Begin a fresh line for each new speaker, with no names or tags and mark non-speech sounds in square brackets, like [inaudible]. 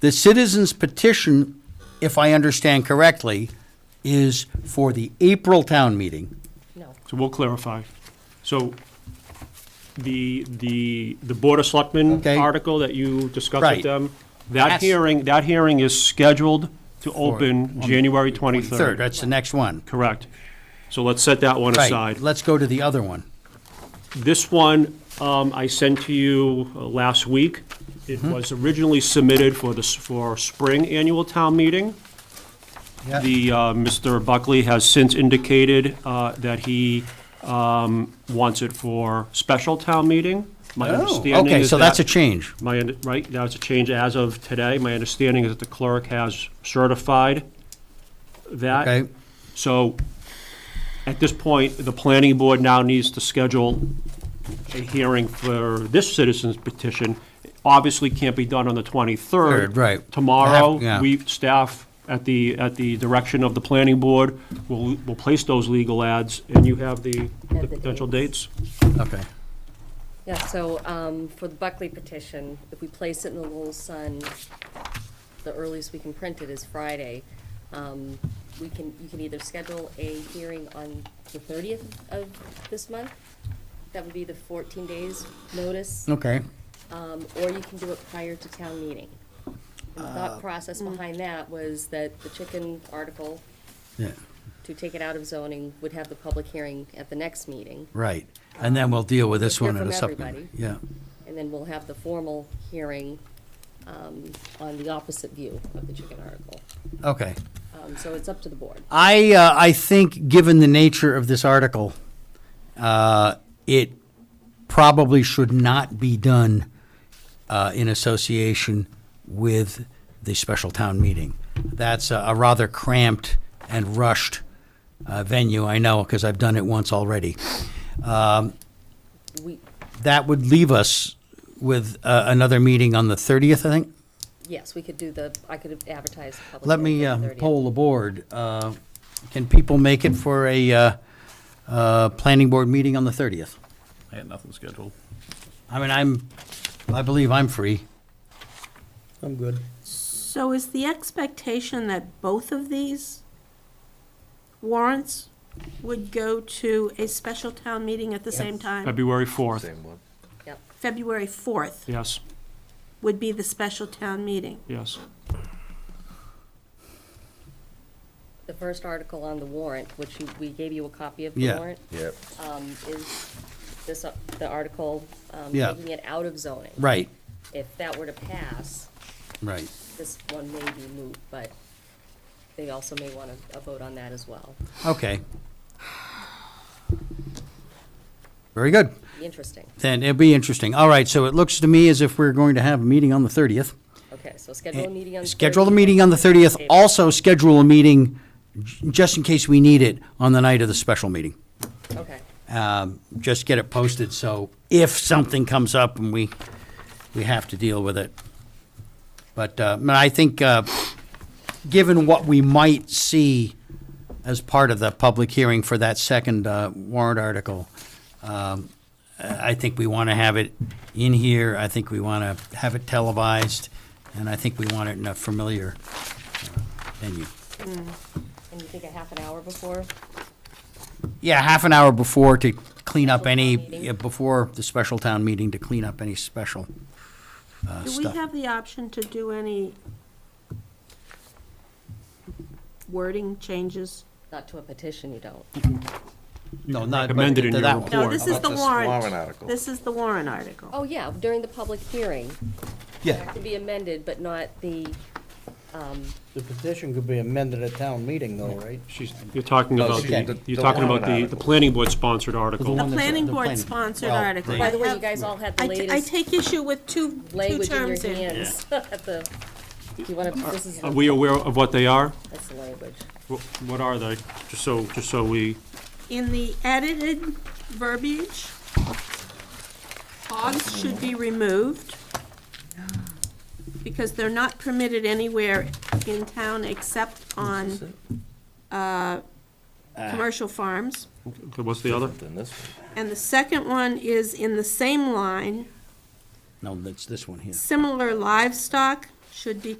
The citizens petition, if I understand correctly, is for the April town meeting.
No.
So we'll clarify. So the, the, the Board of Selectmen
Okay.
article that you discussed
Right.
with them,
That's-
that hearing, that hearing is scheduled to open January
Third,
23rd.
that's the next one.
Correct. So let's set that one
Right.
aside.
Let's go to the other one.
This one, um, I sent to you uh, last week. It
Mm-hmm.
was originally submitted for the, s- for spring annual town meeting.
Yeah.
The, uh, Mr. Buckley has since indicated, uh, that he, um, wants it for special town meeting. My Oh. understanding
Oh, Okay,
is
so that's a
that-
change.
My, under- right, that was a change as of today. My understanding is that the clerk has certified that.
Okay,
So, at this point, the planning board now needs to schedule a hearing for this citizen's petition. Obviously can't be done on the
Third,
23rd.
right. Have- yeah.
Tomorrow, we, staff, at the, at the direction of the planning board, will, will place those legal ads, and you have the
Have
the
the
potential dates?
okay.
Yeah, so um, for the Buckley petition, if we place it in the Lowell Sun, the earliest we can print it is Friday. Um, We can, you can either schedule a hearing on the 30th of this month, that would be the 14 days notice,
Okay,
um, or you can do it prior to town meeting. And The thought process behind that was that the chicken article,
yeah,
to take it out of zoning, would have the public hearing at the next meeting.
right. And then we'll deal with this
Hear
one in a
from
subsequent.
everybody.
Yeah,
And then we'll have the formal hearing um, on the opposite view of the chicken article.
okay.
Um, So it's up to the board.
I, uh, I think, given the nature of this article, uh, it probably should not be done uh, in association with the special town meeting. That's a a rather cramped and rushed uh, venue, I know, because I've done it once already. Um,
We,
That would leave us with uh, another meeting on the 30th, I think.
yes, we could do the, I could have advertised. the public
Let me
hearing for
uh,
the 30th.
poll the board. Uh, Can people make it for a uh, uh, planning board meeting on the 30th?
I had nothing scheduled.
I mean, I'm, I believe I'm free.
I'm good.
So is the expectation that both of these warrants would go to a special town meeting at the same time?
February 4th,
one.
Yep.
February 4th
yes,
would be the special town meeting.
yes.
The first article on the warrant, which you- we gave you a copy of the
Yeah.
warrant,
Yep.
um, is this, uh, the article um,
Yeah.
taking it out of zoning.
Right,
If that were to pass,
right.
this one may be moot, but they also may want to vote on that as well.
Okay. Very good.
Be interesting.
Then it'll be interesting. All right, so it looks to me as if we're going to have a meeting on the 30th.
Okay, so schedule Oh, a meeting on the 30th.
Eh, Schedule the meeting on the 30th.
Okay.
Also schedule a meeting, j- just in case we need it, on the night of the special meeting.
Okay.
um, just get it posted, so if something comes up and we, we have to deal with it. But, uh, I mean, I think, uh, given what we might see as part of the public hearing for that second, uh, warrant article, um, I I think we want to have it in here, I think we want to have it televised, and I think we want it in a familiar uh, venue.
And you think a half an hour before?
Yeah, half an hour before to clean up
Special town
any,
meeting.
yeah, before the special town meeting to clean up any special uh,
Do we
stuff.
have the option to do any wording changes?
Not to a petition, you don't.
No, not
recommend it
to
in your
that one.
No, this is
about
the
this warrant
warrant.
article?
This is the warrant article.
Oh, yeah, during the public hearing.
Yeah,
To be amended, but not the, um,
The petition could be amended at town meeting though, right?
She's, you're talking
No,
about,
she-
the-
the-
you're
the
talking about
warrant
the, the
article.
planning board sponsored article.
The
one that's-
planning
the
board
planning-
sponsored
well,
article.
the-
by the way,
I
you guys all had the
I t- I
latest
take issue with two, two
language in your
terms in.
hands. [laughs] at the- Do you want to, this is,
Are we aware of what they are?
that's the language.
Wh- What are they? Just so, just so we,
In the edited verbiage, hogs should be removed because they're not permitted anywhere in town except on, uh, commercial farms.
okay, what's the other?
Than this one.
And the second one is in the same line,
no, that's this one here.
similar livestock should be